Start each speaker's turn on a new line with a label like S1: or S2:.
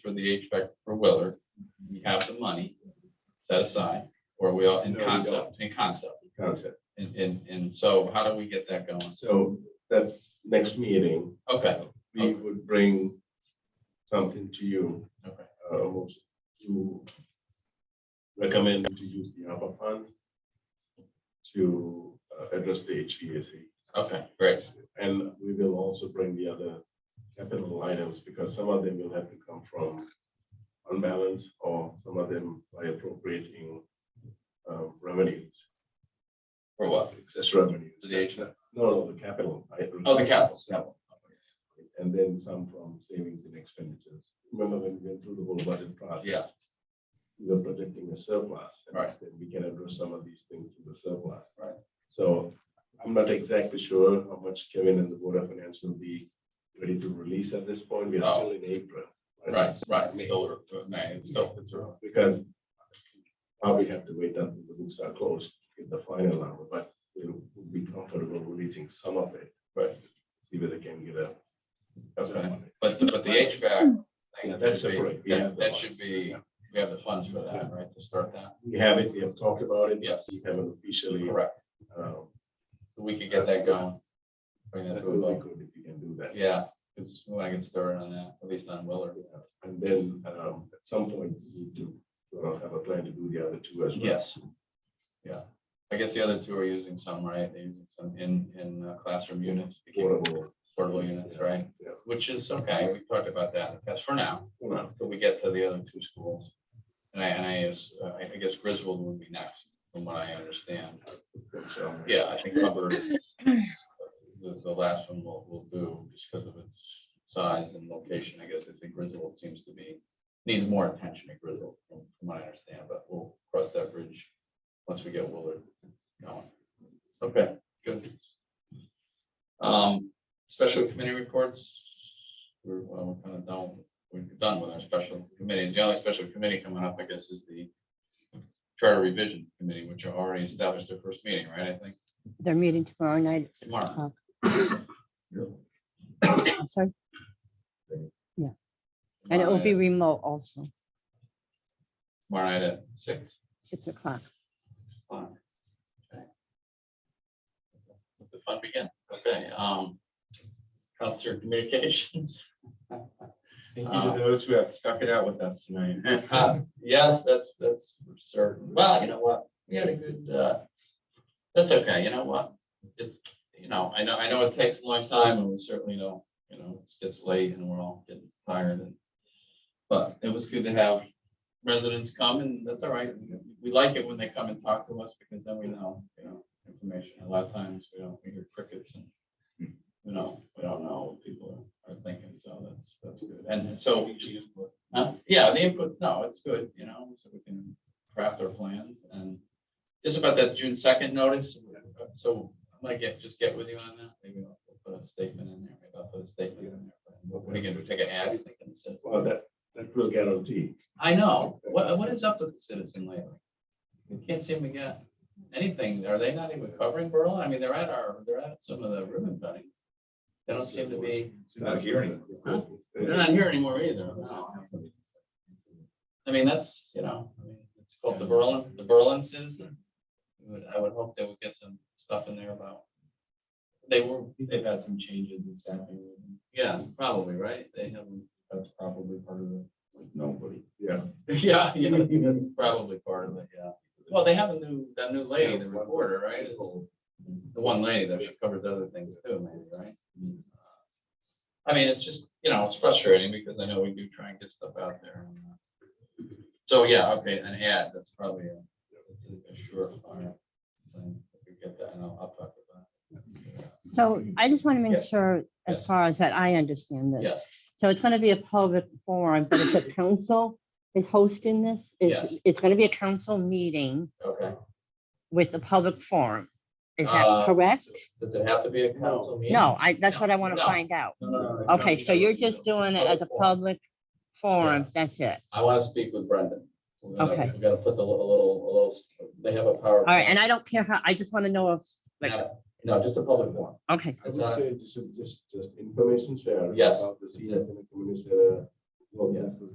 S1: for the HVAC for Willard, we have the money set aside, or we are in
S2: No, we
S1: concept, in concept.
S2: concept.
S1: And, and, and so how do we get that going?
S2: So that's next meeting,
S1: Okay,
S2: we would bring something to you.
S1: Okay.
S2: uh, most- To recommend to use the ARPA fund to uh, address the HVAC.
S1: okay, great.
S2: And we will also bring the other capital items because some of them will have to come from unbalance or some of them by appropriating uh, revenues,
S1: For what?
S2: excess revenues.
S1: The HVAC.
S2: No, no, the capital. items.
S1: Oh, the capital, capital.
S2: And then some from savings and expenditures. Remember when we went through the whole budget process?
S1: Yeah,
S2: we are projecting a surplus. and
S1: Right.
S2: then We can address some of these things with the surplus.
S1: Right.
S2: So I'm not exactly sure how much Kevin and the Board of Finance will be ready to release at this point. We are
S1: Oh.
S2: still in April.
S1: right, right. Still, man, it's still, it's a-
S2: Because probably have to wait until the books are closed, get the final number, but we'll we'll be comfortable releasing some of it. But see whether they can get a.
S1: Okay. But, the- but the HVAC.
S2: Yeah,
S1: thing
S2: that's
S1: should be-
S2: separate. We have
S1: That
S2: the
S1: that
S2: funds.
S1: should be, we have the funds for that, right, to start that?
S2: We have it, we have talked about it.
S1: Yes.
S2: We haven't officially.
S1: Correct.
S2: um,
S1: We could get that going. Bring that
S2: That
S1: to a
S2: would be
S1: vote.
S2: good if you can do that.
S1: Yeah, because I can start on that, at least on Willard.
S2: And then um, at some point, you need to sort of have a plan to do the other two as well.
S1: Yes. Yeah, I guess the other two are using some, right? They're using some in, in uh, classroom units, to keep
S2: Portable.
S1: portable units, right?
S2: Yeah.
S1: Which is okay, we talked about that, that's for now,
S2: you know,
S1: till we get to the other two schools. And I, and I, is- uh, I guess Griswold would be next, from what I understand.
S2: and so-
S1: Yeah, I think Hubbard, the, the last one will, will do, just because of its size and location, I guess, I think Griswold seems to be, needs more attention at Griswold, from from what I understand, but we'll cross that bridge once we get Willard going. Okay, good. Um, special committee reports, we're, well, we're kind of done, we're done with our special committees, the only special committee coming up, I guess, is the charter revision committee, which are already established their first meeting, right, I think?
S3: They're meeting tomorrow night. at six
S1: Tomorrow.
S3: o'clock.
S2: Yeah.
S3: I'm sorry. Yeah, and it will be remote also,
S1: Tomorrow night at six.
S3: six o'clock.
S1: Fine. Okay. Let The fun begin. Okay, um, Council Communications.
S4: Thank you
S1: Uh,
S4: to
S2: Ah.
S4: those who have stuck it out with us tonight.
S1: Yes, that's, that's certain. Well, you know what? We had a good, uh, that's okay. You know what? It, you know, I know, I know it takes a long time and we certainly know, you know, it gets late and we're all getting tired and, but it was good to have residents come and that's all right. We like it when they come and talk to us because then we know, you know, information. A lot of times we don't, we hear crickets and we don't, we don't know what people are thinking. So that's, that's good. And so uh, yeah, the input, no, it's good, you know, so we can craft our plans and just about that June second notice. So I'm gonna get, just get with you on that. Maybe I'll put a statement in there, maybe I'll put a statement in there. but What are you gonna do, take an ad, you think, in the citizen?
S2: Well, that, that will guarantee.
S1: I know. What, what is up with the citizen lately? We can't seem to get anything. Are they not even covering Berlin? I mean, they're at our, they're at some of the ribbon cutting. They don't seem to be,
S4: Not hearing.
S1: Huh? they're not here anymore either. No. I mean, that's, you know, I mean, it's called the Berlin, the Berlin citizen. We would- I would hope they would get some stuff in there about. They were,
S4: They've had some changes in staffing.
S1: yeah, probably, right? They have,
S4: That's probably part of it.
S2: Nobody. Yeah.
S1: yeah, yeah, that's probably part of it, yeah. Well, they have a new, that new lady, the reporter, right? Is- The one lady that she covers other things too, maybe, right? Mm-hmm. I mean, it's just, you know, it's frustrating because I know we do try and get stuff out there. So, yeah, okay, an ad, that's probably a, that's a surefire thing. If we get that, and I'll, I'll talk about it.
S3: So I just want to make
S1: Yes.
S3: sure, as
S1: Yes.
S3: far as that, I understand this.
S1: Yes,
S3: So it's going to be a public forum, but it's a council is hosting this. It's, it's going to be a council meeting
S1: okay.
S3: with a public forum. Is that
S1: Uh,
S3: correct?
S1: Does it have to be a council meeting?
S3: No, I, that's what I want
S1: No.
S3: to find out.
S1: No, no, no, no.
S3: Okay, so you're just doing it as a public forum. That's it.
S1: I want to speak with Brendan. We're gonna-
S3: Okay.
S1: We're gonna put the little, a little, a little, they have a power.
S3: All right, and I don't care how, I just want to know if, like,
S1: No, no, just a public one.
S3: okay,
S2: I would say just, just, just information share.
S1: Yes.
S2: About the seniors and the communities that are. well, that was